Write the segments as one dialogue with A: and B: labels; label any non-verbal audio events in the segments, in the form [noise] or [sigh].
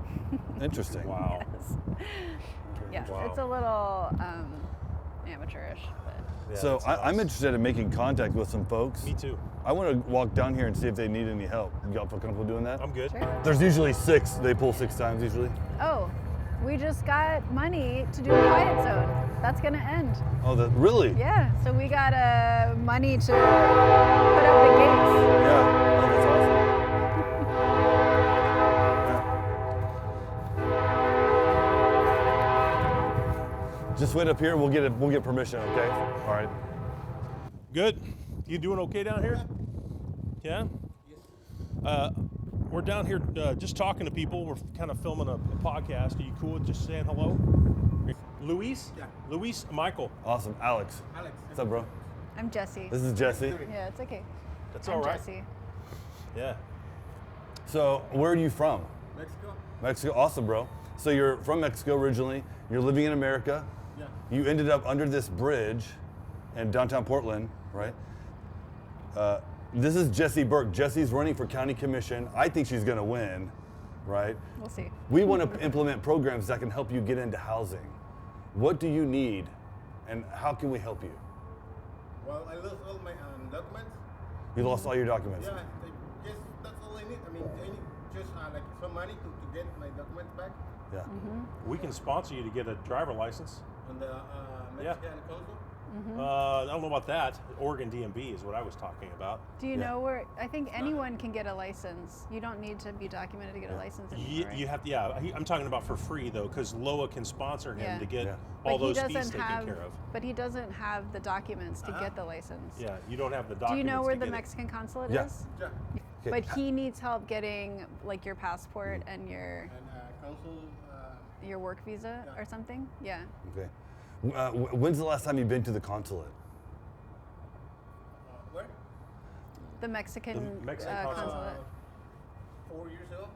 A: [laughs]
B: Interesting.
C: Wow.
A: Yes,
C: Wow.
A: it's a little um, amateurish, but
C: Yeah,
B: so
C: that's
B: I, I'm
C: nice.
B: interested in making contact with some folks.
C: Me too.
B: I want to walk down here and see if they need any help. Y'all feel comfortable doing that?
C: I'm good.
A: sure.
B: There's usually six. They pull six times usually.
A: Oh, we just got money to do a quiet zone. That's gonna end.
B: Oh, that really?
A: Yeah, so we got uh, money to put up the gates.
B: Yeah. Oh, that's awesome. Yeah. Just wait up here. We'll get it. We'll get permission. Okay. All right.
C: Good. You doing okay down here? Yeah. Uh, we're down here uh, just talking to people. We're kind of filming a, a podcast. Are you cool with just saying hello? Luis?
D: Yeah.
C: Luis Michael.
B: Awesome. Alex.
D: Alex.
B: What's up, bro?
A: I'm Jesse.
B: This is Jesse.
A: Yeah, it's okay.
C: That's
A: I'm
C: all right.
A: Jesse.
C: Yeah.
B: So, where are you from?
D: Mexico?
B: Mexico. Awesome, bro. So you're from Mexico originally. You're living in America.
D: Yeah.
B: You ended up under this bridge in downtown Portland, right? Uh, this is Jesse Burke. Jesse's running for county commission. I think she's going to win, right?
A: We'll see.
B: We want to implement programs that can help you get into housing. What do you need, and how can we help you?
D: Well, I lost all my um, documents.
B: You lost all your documents.
D: Yeah, I guess that's all I need. I mean, I need just uh, like some money to, to get my documents back
B: Yeah.
A: Mm-hmm.
C: We can sponsor you to get a driver license.
D: on the uh,
C: Yeah.
D: Mexican consul.
A: Mm-hmm.
C: Uh, I don't know about that. Oregon DMV is what I was talking about.
A: Do you
B: Yeah.
A: know where? I think anyone can get a license. You don't need to be documented to get a license anymore.
C: You,
A: right?
C: you have to, yeah. he- I'm talking about for free though, because Loa can sponsor him
A: Yeah.
C: to get
B: Yeah.
C: all
A: but he
C: those fees
A: doesn't
C: taken
A: have.
C: care of. Uh-huh.
A: But he doesn't have the documents to get the license.
C: Yeah, you don't have the
A: Do
C: documents.
A: you know where
C: to
A: the
C: get it.
A: Mexican consulate
B: Yeah.
A: is?
D: Yeah,
B: Okay.
A: But he needs help getting like your passport and your
D: and uh, consul. Uh,
A: your work visa or something. Yeah.
B: Okay. Uh, wh- when's the last time you've been to the consulate?
D: uh, where?
A: The Mexican,
C: Mexican
A: uh,
C: consulate.
A: consulate.
D: Four years ago?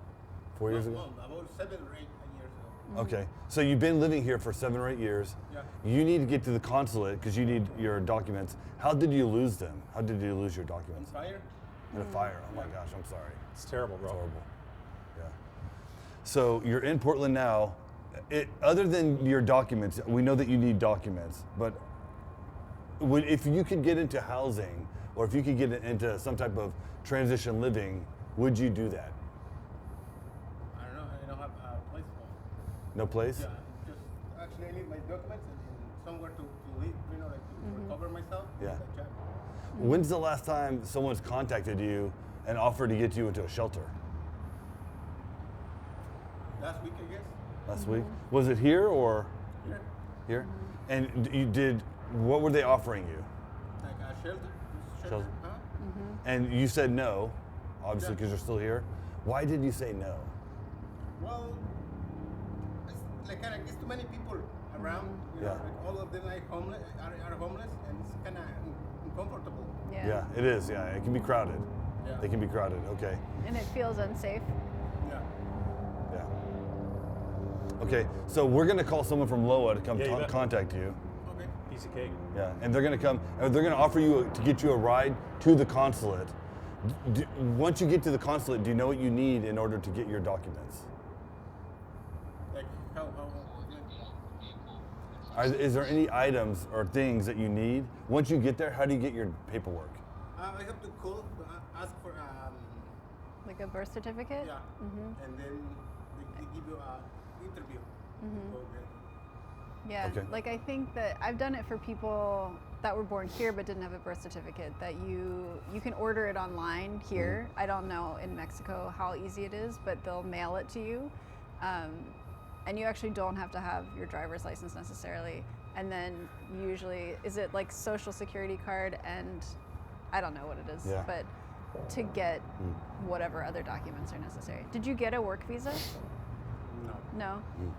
B: Four years
D: No,
B: ago.
D: no, about seven or eight years ago.
B: Okay, so you've been living here for seven or eight years.
D: Mm-hmm. Yeah.
B: You need to get to the consulate because you need your documents. How did you lose them? How did you lose your documents?
D: Fire?
B: In a fire. Oh my
D: Mm.
B: gosh, I'm sorry.
C: It's terrible, bro.
B: It's horrible. Yeah. So you're in Portland now. It, other than your documents, we know that you need documents, but would, if you could get into housing or if you could get into some type of transition living, would you do that?
D: I don't know. I don't have a place for.
B: No place?
D: Yeah, just actually I need my documents and, and somewhere to, to live. You know, like to recover myself.
B: Yeah.
D: Like,
B: When's the last time someone's contacted you and offered to get you into a shelter?
D: Last week, I guess.
B: Last week? Was it here or
D: Yeah.
B: here? And d- you did, what were they offering you?
D: Like a shelter. Shelter.
B: Shelter.
D: Huh?
B: And you said no, obviously,
D: Yeah.
B: because you're still here. Why did you say no?
D: Well, it's like kind of, it's too many people around. You
B: Yeah.
D: know, like all of them like homeless, are, are homeless, and it's kind of uncomfortable.
A: Yeah.
B: it is. Yeah, it can be crowded.
D: Yeah.
B: They can be crowded. Okay.
A: And it feels unsafe.
D: Yeah.
B: Yeah. Okay, so we're going to call someone from LOA to come
C: Yeah, you
B: ta-
C: bet.
B: contact you.
D: Okay.
C: Piece of cake.
B: Yeah, and they're gonna come. uh, They're gonna offer you a- to get you a ride to the consulate. D d- once you get to the consulate, do you know what you need in order to get your documents?
D: Like how how. how-
B: Are, is there any items or things that you need once you get there? How do you get your paperwork?
D: Uh, I have to call to a- ask for um
A: Like a birth certificate.
D: yeah, and then they, they give you a interview. Okay.
A: Yeah,
B: Okay.
A: like I think that I've done it for people that were born here but didn't have a birth certificate. That you you can order it online here.
B: Mm-hmm.
A: I don't know in Mexico how easy it is, but they'll mail it to you, um, and you actually don't have to have your driver's license necessarily. And then usually, is it like social security card and I don't know what it is,
B: Yeah. Mm.
A: but to get whatever other documents are necessary. Did you get a work visa?
D: No.
A: No.
B: Mm.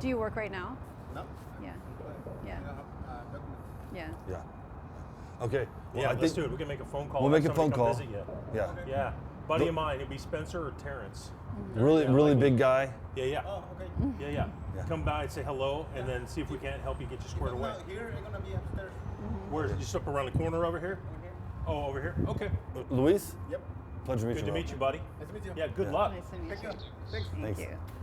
A: Do you work right now?
D: No.
A: Yeah.
D: I-
A: Yeah.
D: I don't have uh, documents.
A: Yeah.
B: Yeah. Okay. Well,
C: yeah,
B: I
C: let's
B: think
C: do it. We can make a phone call.
B: We'll
C: Have
B: make a phone
C: somebody
B: call.
C: come visit
B: Yeah.
C: you. Yeah, buddy of mine. It'd be Spencer or Terrence.
B: Really,
C: Yeah,
B: really
C: like-
B: big guy.
C: Yeah, yeah,
D: Oh, okay.
C: yeah, yeah.
B: Yeah.
C: Come by and say hello, and then see if we can't help you get you squared
D: But
C: away.
D: now here I'm gonna be upstairs.
C: Where's just up around the corner over here?
D: Over here.
C: Oh, over here. Okay.
B: Luis,
D: Yep.
B: pleasure to meet
C: Good
B: you.
C: to
B: bro.
C: meet you, buddy.
D: Nice to meet you.
C: Yeah. Good luck.
A: Nice to meet
D: Thank
A: you.
D: you. Thanks.
A: Thank
B: Thanks.
A: you.